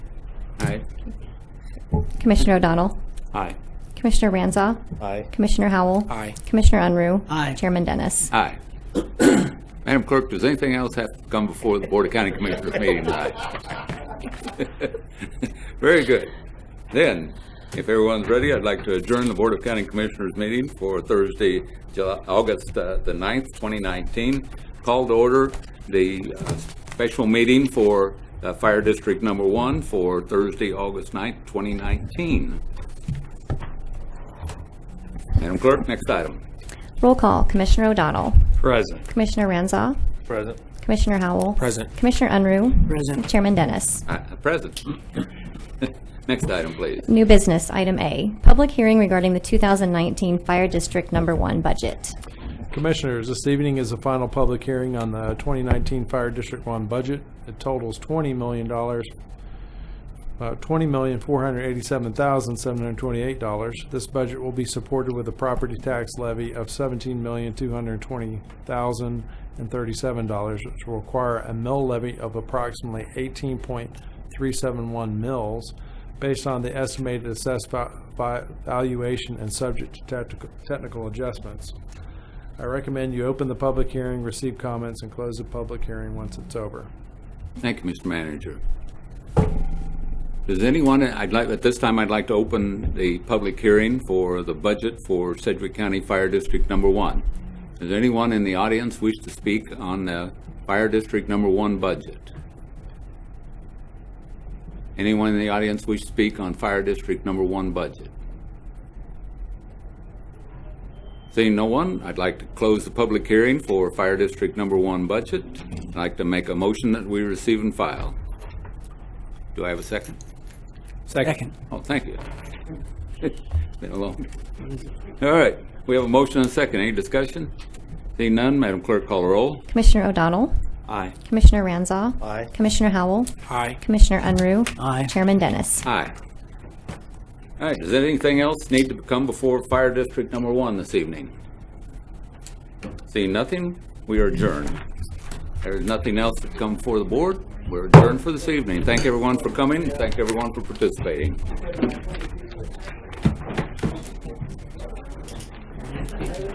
Aye. Commissioner O'Donnell. Aye. Commissioner Ranzau. Aye. Commissioner Howell. Aye. Commissioner Unruh. Aye. Chairman Dennis. Aye. Madam Clerk, does anything else have to come before the Board of County Commissioners meeting tonight? Very good. Then, if everyone's ready, I'd like to adjourn the Board of County Commissioners meeting for Thursday, July, August uh, the 9th, 2019. Call to order the uh, special meeting for uh, Fire District Number One for Thursday, August 9th, 2019. Madam Clerk, next item. Roll call. Commissioner O'Donnell. Present. Commissioner Ranzau. Present. Commissioner Howell. Present. Commissioner Unruh. Present. Chairman Dennis. Uh, Present. Next item, please. New business, item A, public hearing regarding the 2019 Fire District Number One budget. Commissioners, this evening is the final public hearing on the 2019 Fire District 1 budget. It totals $20 million, about $20,487,728. This budget will be supported with a property tax levy of $17,220,037, which will require a mill levy of approximately 18.371 mills based on the estimated assessed va- va- valuation and subject to tactical- technical adjustments. I recommend you open the public hearing, receive comments, and close the public hearing once it's over. Thank you, Mr. Manager. Does anyone, I'd like, at this time, I'd like to open the public hearing for the budget for Sedgwick County Fire District Number One. Does anyone in the audience wish to speak on the Fire District Number One budget? Anyone in the audience wish to speak on Fire District Number One budget? Seeing no one, I'd like to close the public hearing for Fire District Number One budget. I'd like to make a motion that we receive and file. Do I have a second? Second. Oh, thank you. Been a long. All right, we have a motion and a second. Any discussion? Seeing none, Madam Clerk, call the roll. Commissioner O'Donnell. Aye. Commissioner Ranzau. Aye. Commissioner Howell. Aye. Commissioner Unruh. Aye. Chairman Dennis. Aye. All right, does anything else need to come before Fire District Number One this evening? Seeing nothing, we are adjourned. There's nothing else to come before the board. We're adjourned for this evening. Thank everyone for coming, and thank everyone for participating.